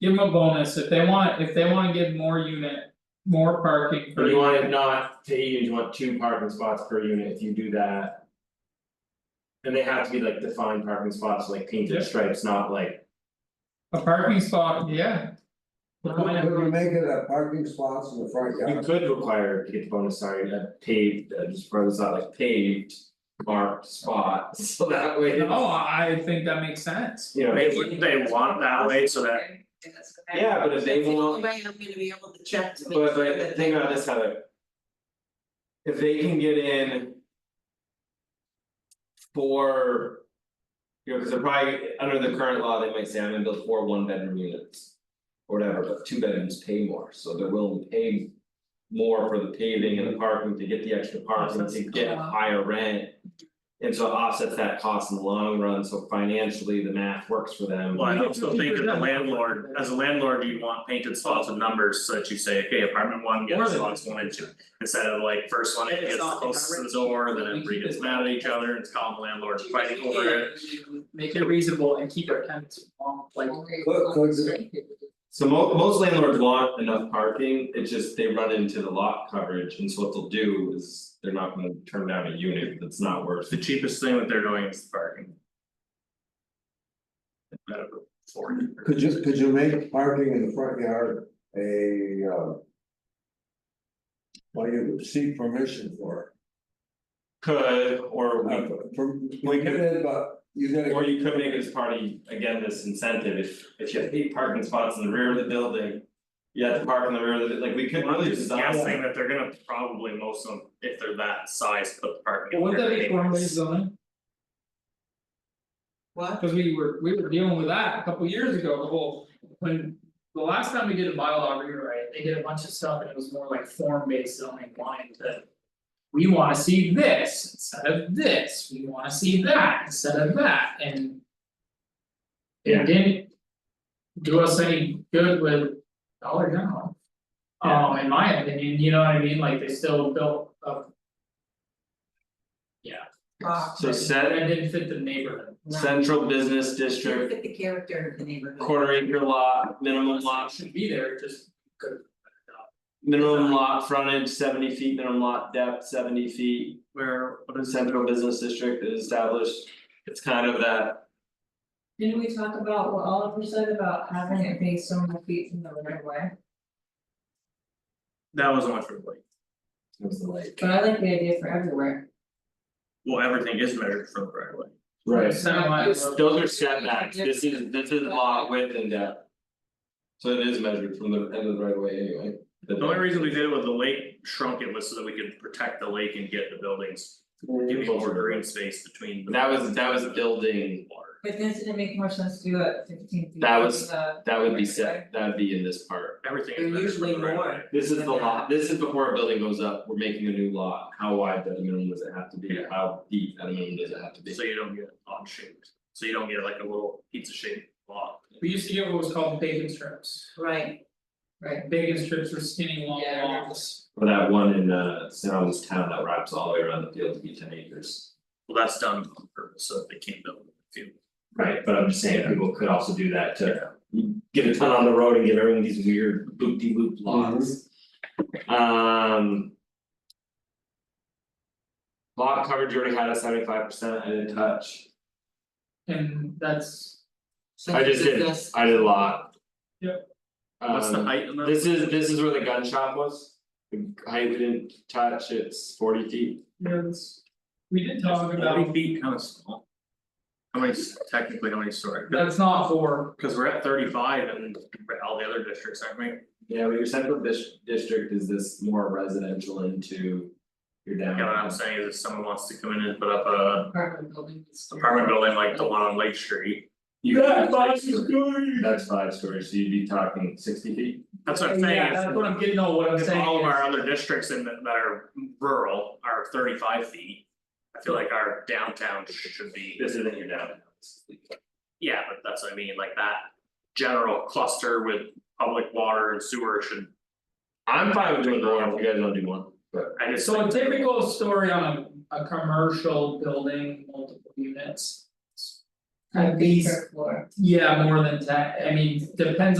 Give them a bonus, if they want, if they wanna give more unit, more parking for. But you want it not to eight units, you want two parking spots per unit if you do that. And they have to be like defined parking spots, like Yeah. painted stripes, not like, A parking spot, yeah. Why Could we not? make it a parking spots in the front you yard? could require to get the bonus, sorry, a paved, uh, just for this out like paved. Marked spot, so that way, you know, No, Oh, I think that makes sense. it's- Wouldn't they want that way so that? yeah, but if they won't, Way I'm gonna be able to check to make but sure but the that thing they. about this, Heather. If they can get in. Four. You know, cause they're probably, under the current law, they might say I'm gonna build four one bedroom units. Or whatever, but two bedrooms pay more, so they're willing to pay. More for the paving and the parking to get the extra parking to get cool. higher rent. And so it offsets that cost in the long run, so financially the math works for them. Well, I also think as a landlord, as a landlord, you'd want painted spots with numbers so that you say, okay, apartment one gets spots one and two. Instead of like first one It's gets the not- closest to the door, then everybody gets mad at each other, and it's calling landlords fighting over it. Make it reasonable and keep our tenants long, like. Could could So mo- most landlords want enough parking, it's just they run into the lot coverage, and so what they'll do is they're not gonna turn down a unit that's not worth The it. cheapest thing that they're doing is parking. Instead of affording. could you, could you make parking in the front yard a uh? Well, you seek permission for Could, or it, we, Uh, from, We you get it, but you gotta. or you could make this party, again, this incentive, if if you have eight parking spots in the rear of the building. You have to park in the rear of the, like, we could I'm really just design guessing that, that they're gonna probably most of, them, if they're that size, put the parking. Would that there be formally anyways. zoning? What? Cause we were, we were dealing with that a couple years ago, the whole, when. The last time we did a bylaw rewrite, they did a bunch of stuff and it was more like form based zoning wanting to. We wanna see this instead of this, we wanna see that instead of that and. Yeah. It didn't. Do us any good with Dollar General. Um, in my opinion, you know what I mean, like they still built a Uh, so And set it didn't fit the neighborhood. no. central business Look district, at the character of the neighborhood. quarter acre lot, minimum lot It Should be there, it just could. Minimum lot frontage seventy feet, minimum lot depth seventy feet, where what is central business district is established. It's kind of that, Didn't we talk about what Oliver said about having it be so many feet from the right of way? That was only for like, it was the like. But I like the idea for everywhere. well, everything is measured from the right way. Right. Semi- Those are setbacks, this is this is lot width and depth. So it is measured from the end of the right of way anyway. The only reason we did it with the lake shrunk it was so that we could protect the lake and get the buildings, give me more green space between the. That was that was building, Water. But doesn't it make more sense to do it fifteen feet That from was- the- that would be set, that would be in this part. Everything They're is measured usually from the right more. way. This is the lot, this is before a building goes up, we're making a new lot, how wide at a minimum does it have to be, how deep at a minimum does it have to be? So you don't get odd shaped, so you don't get like a little pizza shaped lot. We used to get what was called bacon strips, Right. Right. bacon strips were skinny long Yeah, I remember. walls. Or that one in uh Sounds Town that wraps all the way around the field to be ten acres. Well, that's done on purpose, so that they can't build a field. Right, but I'm just saying, people could also do that to get a ton on the road and give everyone these weird loop de Mm-hmm. loop lots. Um. Lot coverage already had a seventy five percent, I didn't touch, And that's, I just did, I did a lot. Yep. What's the Um, height on that? this is this is where the gun shop was, the height we didn't touch, it's forty feet, you know, this, we did talk Forty about, feet, kind of small. How many, s- technically, how many stories? that's not for, Cause we're at thirty five and all the other districts, aren't we? Yeah, but your central dis- district is this more residential into your Yeah, what I'm downtown. saying is if someone wants to come in and put up a Apartment building. it's- apartment building like the one on Lake Street. You- That's five stories. That's five stories, so you'd be talking sixty feet. That's what I'm saying yeah, is that's what I'm getting, no, what I'm if saying all of our is, other districts in that that are rural are thirty five feet. I feel like our downtown should be, This isn't your downtown. yeah, but that's what I mean, like that general cluster with public water and sewer should, I'm fine with doing one, if you guys don't do one, but. I just. so a think- typical story on a, a commercial building, multiple units. Kind of At least, per floor. yeah, more than ten, I mean, depends